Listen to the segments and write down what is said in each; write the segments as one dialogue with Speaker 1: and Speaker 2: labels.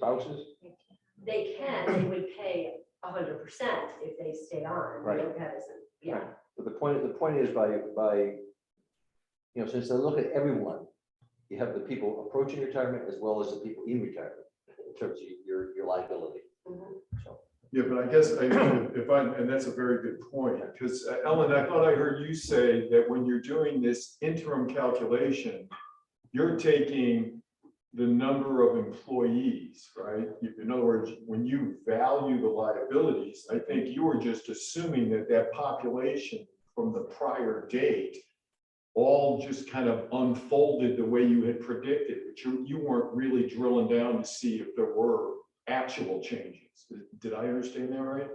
Speaker 1: spouses?
Speaker 2: They can, they would pay hundred percent if they stay on.
Speaker 1: Right.
Speaker 2: They don't have as, yeah,
Speaker 1: But the point, the point is by, by, you know, since they look at everyone, you have the people approaching retirement as well as the people in retirement in terms of your, your liability.
Speaker 2: Mhm.
Speaker 1: So,
Speaker 3: Yeah, but I guess I, if I, and that's a very good point, because uh, Ellen, I thought I heard you say that when you're doing this interim calculation, you're taking the number of employees, right? You- In other words, when you value the liabilities, I think you were just assuming that that population from the prior date all just kind of unfolded the way you had predicted, but you, you weren't really drilling down to see if there were actual changes. Did I understand that right?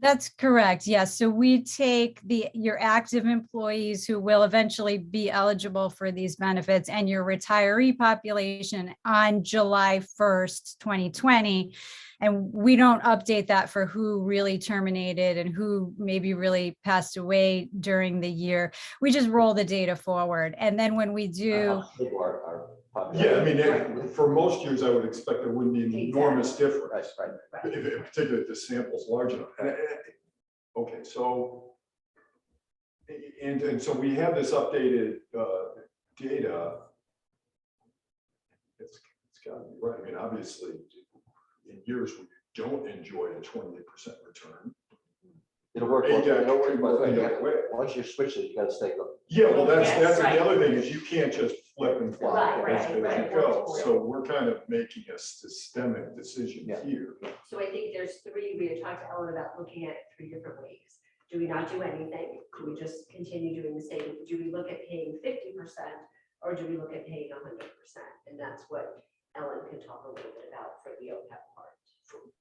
Speaker 4: That's correct. Yes. So we take the, your active employees who will eventually be eligible for these benefits and your retiree population on July 1st, 2020. And we don't update that for who really terminated and who maybe really passed away during the year. We just roll the data forward. And then when we do,
Speaker 5: Uh-huh.
Speaker 1: How big Our, our.
Speaker 3: Yeah, I
Speaker 1: population?
Speaker 3: mean, it- for most years, I would expect there wouldn't be an enormous
Speaker 1: Right,
Speaker 3: difference,
Speaker 1: right.
Speaker 3: if- if- particularly if the sample's large enough. And- and- Okay, so and, and so we have this updated uh, data. It's, it's gotta be right. I mean, obviously, in years, we don't enjoy a twenty-eight percent return.
Speaker 1: It'll work.
Speaker 3: Hey,
Speaker 1: well.
Speaker 3: Jack,
Speaker 1: Don't worry about it.
Speaker 3: you know, wait.
Speaker 1: Once you switch it, you gotta stay, look,
Speaker 3: Yeah, well, that's,
Speaker 2: Yes,
Speaker 3: that's the
Speaker 2: right.
Speaker 3: other thing is you can't just flip and flop
Speaker 2: Right,
Speaker 3: as
Speaker 2: right,
Speaker 3: as you
Speaker 2: right.
Speaker 3: go. So we're kind of making a systemic decision
Speaker 1: Yeah.
Speaker 3: here.
Speaker 2: so I think there's three, we had talked to Ellen about looking at it three different ways. Do we not do anything? Do we just continue doing the same? Do we look at paying fifty percent? Or do we look at paying hundred percent? And that's what Ellen can talk a little bit about for the E OPEB part.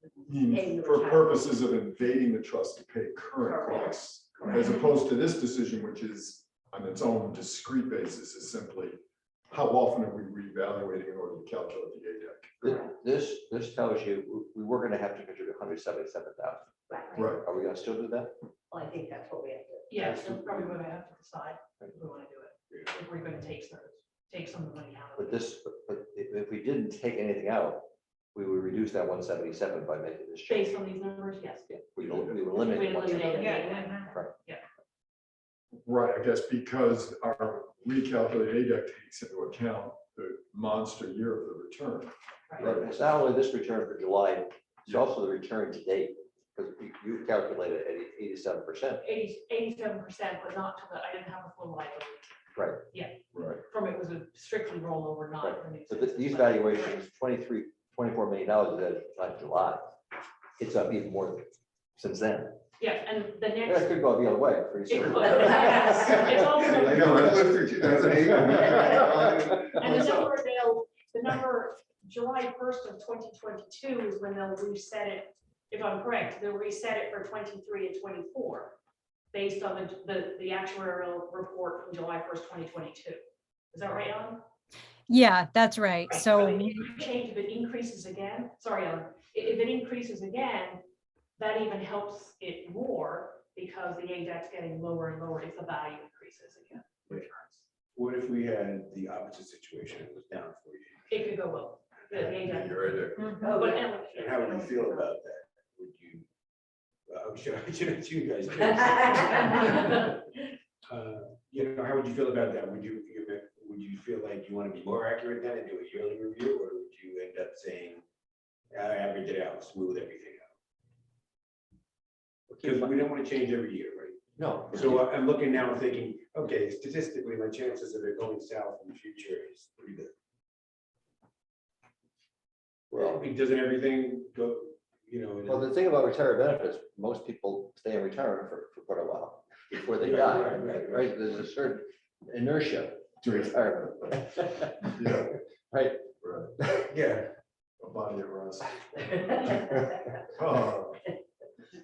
Speaker 3: I mean, For purposes of invading the trust to pay current
Speaker 2: Correct.
Speaker 3: costs, as opposed to this decision, which is on its own discrete basis is simply how often are we reevaluating in order to calculate the E ADEC?
Speaker 1: Thi- this, this tells you, we we were gonna have to contribute hundred seventy-seven thousand.
Speaker 2: Right,
Speaker 3: Right,
Speaker 1: Are we gonna still do that?
Speaker 2: well, I think that's what we have to.
Speaker 5: Yeah, so probably what I have to decide, if we want to do it, if we're going to take some, take some of the money out of
Speaker 1: But
Speaker 5: it.
Speaker 1: this, but- but if, if we didn't take anything out, we would reduce that one seventy-seven by making this change.
Speaker 5: Based on these numbers, yes.
Speaker 1: Yeah, We don't, we
Speaker 5: We
Speaker 1: eliminate.
Speaker 5: eliminate it.
Speaker 3: right, I guess because our recalculated ADEC takes into account the monster year of the return.
Speaker 5: Right.
Speaker 1: It's not only this return for July, it's also the return to date, because you, you calculated at eighty-seven percent.
Speaker 5: Eighty, eighty-seven percent was not to the, I didn't have a full liability.
Speaker 1: Right.
Speaker 5: Yeah,
Speaker 3: Right.
Speaker 5: from it was a strictly rollover, not.
Speaker 1: Right.
Speaker 5: the new
Speaker 1: So th-
Speaker 5: system,
Speaker 1: these
Speaker 5: but-
Speaker 1: valuations, 23, 24 million dollars, that's not July. It's up even more since then.
Speaker 5: Yeah, and the
Speaker 1: Yeah, It
Speaker 5: next,
Speaker 1: could go the other way pretty
Speaker 5: It
Speaker 1: soon.
Speaker 5: could. It's also-
Speaker 3: I know, I lived through 2008.
Speaker 5: and the number they'll, the number, July first of twenty twenty-two is when they'll reset it, if I'm correct, they'll reset it for twenty-three and twenty-four, based on the, the, the actuarial report from July first, twenty twenty-two. Is that right, Ellen?
Speaker 4: yeah, that's right.
Speaker 5: Right,
Speaker 4: So
Speaker 5: the
Speaker 4: we-
Speaker 5: Change, if it increases again, sorry, Ellen, i- if, it increases again, that even helps it more because the ADEC's getting lower and lower if the value increases again. returns.
Speaker 6: What if we had the opposite situation, it was down for you?
Speaker 5: It could go up, the the ADEC.
Speaker 6: Your ADEC.
Speaker 2: Oh,
Speaker 5: But
Speaker 2: yeah.
Speaker 5: Ellen-
Speaker 6: And how would you feel about that? Would you? well, I'm sure, I'm sure it's you guys. do. Uh, You know, how would you feel about that? Would you, you would- would you feel like you want to be more accurate than and do a yearly review, or would you end up saying, I average it out, smooth everything out? Because we don't want to change every year, right?
Speaker 1: No. uh,
Speaker 6: So I- I'm looking now and thinking, okay, statistically, my chances of it going south in the future is pretty good. Well, I mean, doesn't everything go, you know? in a-
Speaker 1: Well, the thing about retiree benefits, most people stay in retirement for, for quite a while before they
Speaker 6: Right,
Speaker 1: die,
Speaker 6: right, right, right.
Speaker 1: right? There's a certain inertia to retirement.
Speaker 3: Yeah,
Speaker 1: Right.
Speaker 3: right.
Speaker 6: Yeah,
Speaker 3: A body of rust. Uh,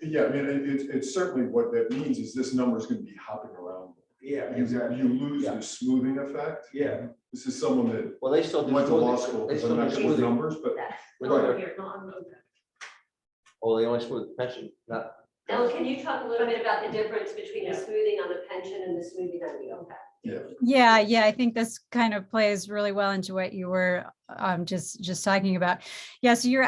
Speaker 3: Yeah, I mean, it, it's- it's certainly what that means is this number is gonna be hopping around.
Speaker 6: yeah,
Speaker 3: You, you
Speaker 6: exactly.
Speaker 3: lose the smoothing effect.
Speaker 6: Yeah,
Speaker 3: This is someone that
Speaker 1: Well, they still do.
Speaker 3: went to law
Speaker 1: smoothing.
Speaker 3: school,
Speaker 1: They
Speaker 3: because
Speaker 1: still
Speaker 3: I'm
Speaker 1: do
Speaker 3: not good with
Speaker 1: smoothing.
Speaker 3: numbers, but
Speaker 5: Not here, not on OPEB.
Speaker 1: Oh, they only smooth pension, not.
Speaker 2: Ellen, can you talk a little bit about the difference between the
Speaker 5: Yeah.
Speaker 2: smoothing on the pension and the smoothing on the OPEB?
Speaker 4: Yeah, yeah, I think this kind of plays really well into what you were um just just talking about. Yes, you're